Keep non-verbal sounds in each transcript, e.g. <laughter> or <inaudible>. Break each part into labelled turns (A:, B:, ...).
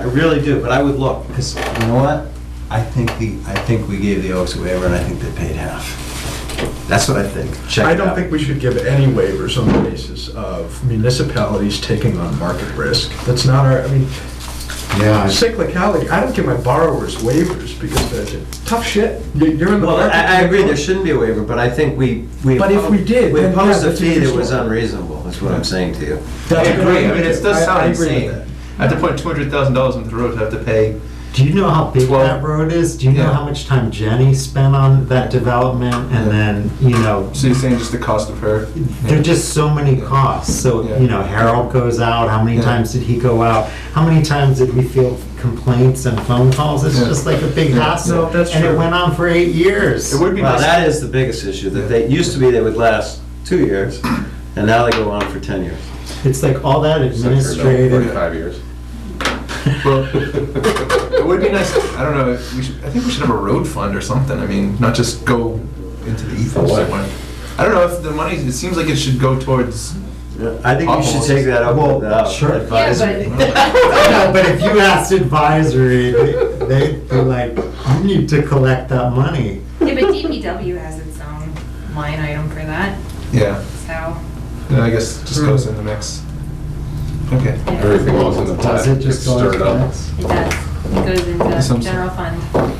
A: I really do, but I would look, because
B: You know what? I think the, I think we gave the Oaks a waiver and I think they paid half. That's what I think. Check
C: I
B: it
C: don't
B: out.
C: think we should give any waivers on the basis of municipalities taking on market risk. That's not our, I mean,
D: Yeah, I-
C: cyclicality, I don't give my borrowers waivers because they're tough shit. You- You're in the
A: Well,
C: market.
A: I, I agree, there shouldn't be a waiver, but I think we, we.
C: But if we did,
A: We
C: then
A: imposed
C: yeah,
A: a
C: that's
A: fee that was
C: interesting.
A: unreasonable, is what I'm saying to you.
E: I
C: That's what
E: agree, I mean, it does
C: I- I
E: sound
C: agree with
E: insane.
C: that.
E: I have to put two hundred thousand dollars into the road to have to pay.
D: do you know how big
E: Well-
D: that road is? Do you know
E: Yeah.
D: how much time Jenny spent on that development? And then, you know,
E: So you're saying just the cost of her?
D: there are just so many costs. So,
E: Yeah.
D: you know, Harold goes out, how many
E: Yeah.
D: times did he go out? How many times did we field complaints and phone calls? It's
E: Yeah.
D: just like a big
E: Yeah.
D: hassle.
C: No, that's
D: And it
C: true.
D: went on for eight years.
E: It would be
A: Well,
E: nice.
A: that is the biggest issue, that they, used to be they would last two years, and now they go on for 10 years.
D: It's like all that administrative. <laughs>
C: <laughs>
F: Forty-five years.
E: <laughs> Well, it would be nice. I don't know. We should, I think we should have a road fund or something. I mean, not just go into the ether
F: For what?
E: somewhere. I don't know if the money. It seems like it should go towards.
A: I think you should take that up with
D: Well, sure.
A: the advisory.
D: No, but if you asked advisory, they, they- they're like, you need to collect that money.
G: Yeah, but DPW has its own line item for that,
E: Yeah.
G: so.
E: Then I guess it just goes in the mix. Okay.
F: Everything else in the pot
D: Does it
F: gets
D: just go
F: stirred
D: like
F: up.
D: this?
G: It does, it goes
E: Some-
G: into general fund. <laughs>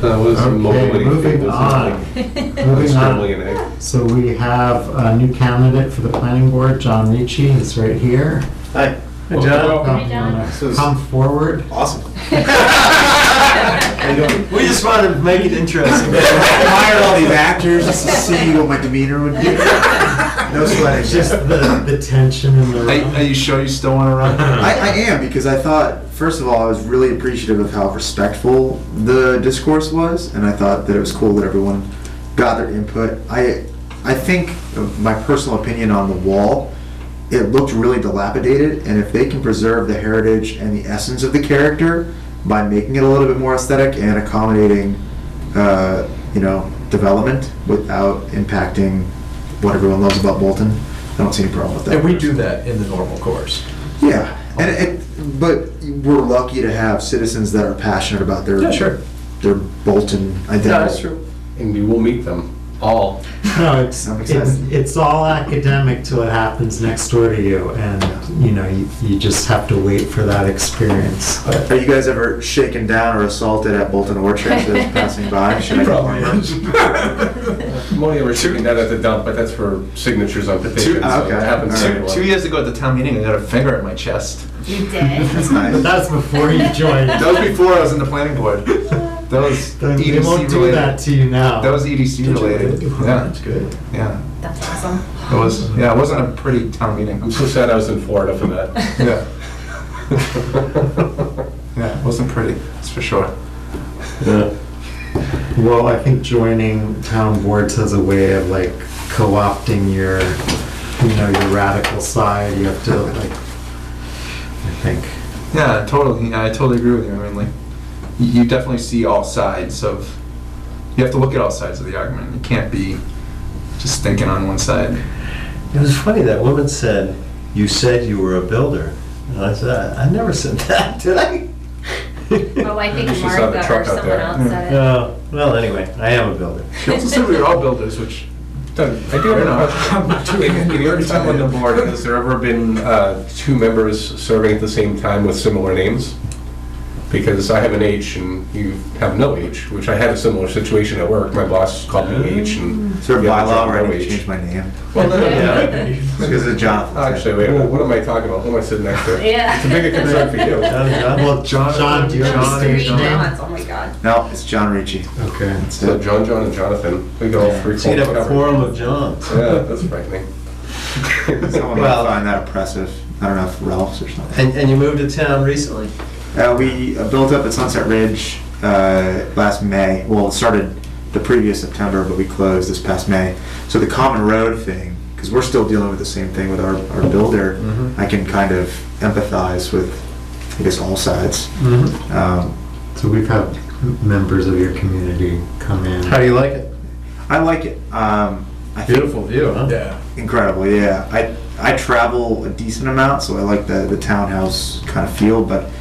F: That was
D: Okay,
F: molding.
D: moving on. Moving
F: Scrambling
D: on.
F: an egg.
D: So we have a new candidate for the planning board, John Ricci, he's right here.
H: Hi.
A: Hey, John,
D: Um,
G: Hi, John.
D: wanna
H: This is-
D: Come forward.
H: Awesome.
G: How
H: How you doing?
A: we just wanted to make it interesting.
H: Hired all these actors just to see what my demeanor would be. No sweating.
D: It's just the, the tension in the
E: Are, are
D: room.
E: you sure you still want to run?
H: I, I am because I thought, first of all, I was really appreciative of how respectful the discourse was, and I thought that it was cool that everyone got their input. I, I think uh, my personal opinion on the wall, it looked really dilapidated, and if they can preserve the heritage and the essence of the character by making it a little bit more aesthetic and accommodating, uh, you know, development without impacting what everyone loves about Bolton, I don't see any problem with that.
C: And we do that in the normal course.
H: Yeah, and it, but we're lucky to have citizens that are passionate about their
C: Yeah, sure.
H: their Bolton identity.
A: No, that's true.
F: And we will meet them all.
D: <laughs> No, it's,
H: I'm
D: it's,
H: excited.
D: it's all academic till it happens next door to you. And, you know, you, you just have to wait for that experience. But
H: Are you guys ever shaken down or assaulted at Bolton Orchard as it's passing by? Should I
C: Probably
H: complain?
C: is.
F: I'm only ever shooting that at the dump, but that's for signatures on petitions.
E: Two-
F: so it
H: okay,
F: happens
H: all
E: two,
F: everywhere.
E: two years ago at the town meeting, I got a finger at my chest.
G: You did?
H: That's nice.
D: but that's before you joined.
E: That was before I was in the planning board. That was
D: <laughs> They
E: EDC
D: won't do
E: related.
D: that to you now.
E: That was EDC related. Yeah,
C: That's good.
E: yeah.
G: That's awesome.
E: It was, yeah, it wasn't a pretty town meeting.
F: I'm so sad I was in Florida for that.
E: <laughs> Yeah, <laughs> yeah, it wasn't pretty, that's for sure.
D: Well, I think joining town boards has a way of like co-opting your, you know, your radical side. You have to like, I think.
E: Yeah, totally, yeah, I totally agree with you. I mean, like, you you definitely see all sides of, you have to look at all sides of the argument. You can't be just thinking on one side.
A: It was funny, that woman said, "You said you were a builder." And I said, "I I never said <laughs> that, did I?"
G: Oh, I think
F: You should saw the
G: Martha or
F: truck out
G: someone
F: there.
G: else said it.
A: No, well, anyway, I am a builder.
E: She also said we were all builders, which,
F: Done. I do have a question. In in your time on the board, has there ever been uh, two members serving at the same time with similar names? Because I have an H and you have no H, which I had a similar situation at work. My boss called me H and.
H: Is there a
F: the other
H: bylaw
F: job,
H: where
F: no
H: I need to
F: H.
H: change my name?
F: Well, no,
G: Yeah.
F: no, no.
H: Because of Jonathan.
F: Actually, wait, a minute. what am I talking about? Who am I sitting next to?
G: Yeah.
F: It's
G: <laughs>
F: a bigger concern for you.
A: John, John?
D: Well, John, John do you have a
G: Those
D: stage
G: three
D: name?
G: Johns, oh my god.
H: No, it's John Ricci.
D: Okay.
H: That's
F: So
H: it.
F: John, John, and Jonathan, we got all three.
A: So you'd have a
F: covered.
A: quorum of Johns.
F: Yeah, that's frightening.
H: Someone
A: Well-
H: might find that oppressive. I don't know if Ralph's or something.
A: And, and you moved to town recently?
H: Uh, we uh, built up at Sunset Ridge uh, last May. Well, it started the previous September, but we closed this past May. So the common road thing, because we're still dealing with the same thing with our, our builder, I can kind of empathize with, I guess, all sides.
D: Mhm.
H: Um,
D: So we've had members of your community come in.
A: do you like it?
H: I like it. Um, I think
A: Beautiful view, huh?
C: Yeah.
H: incredible. Yeah, I I travel a decent amount, so I like the the townhouse kind of feel, but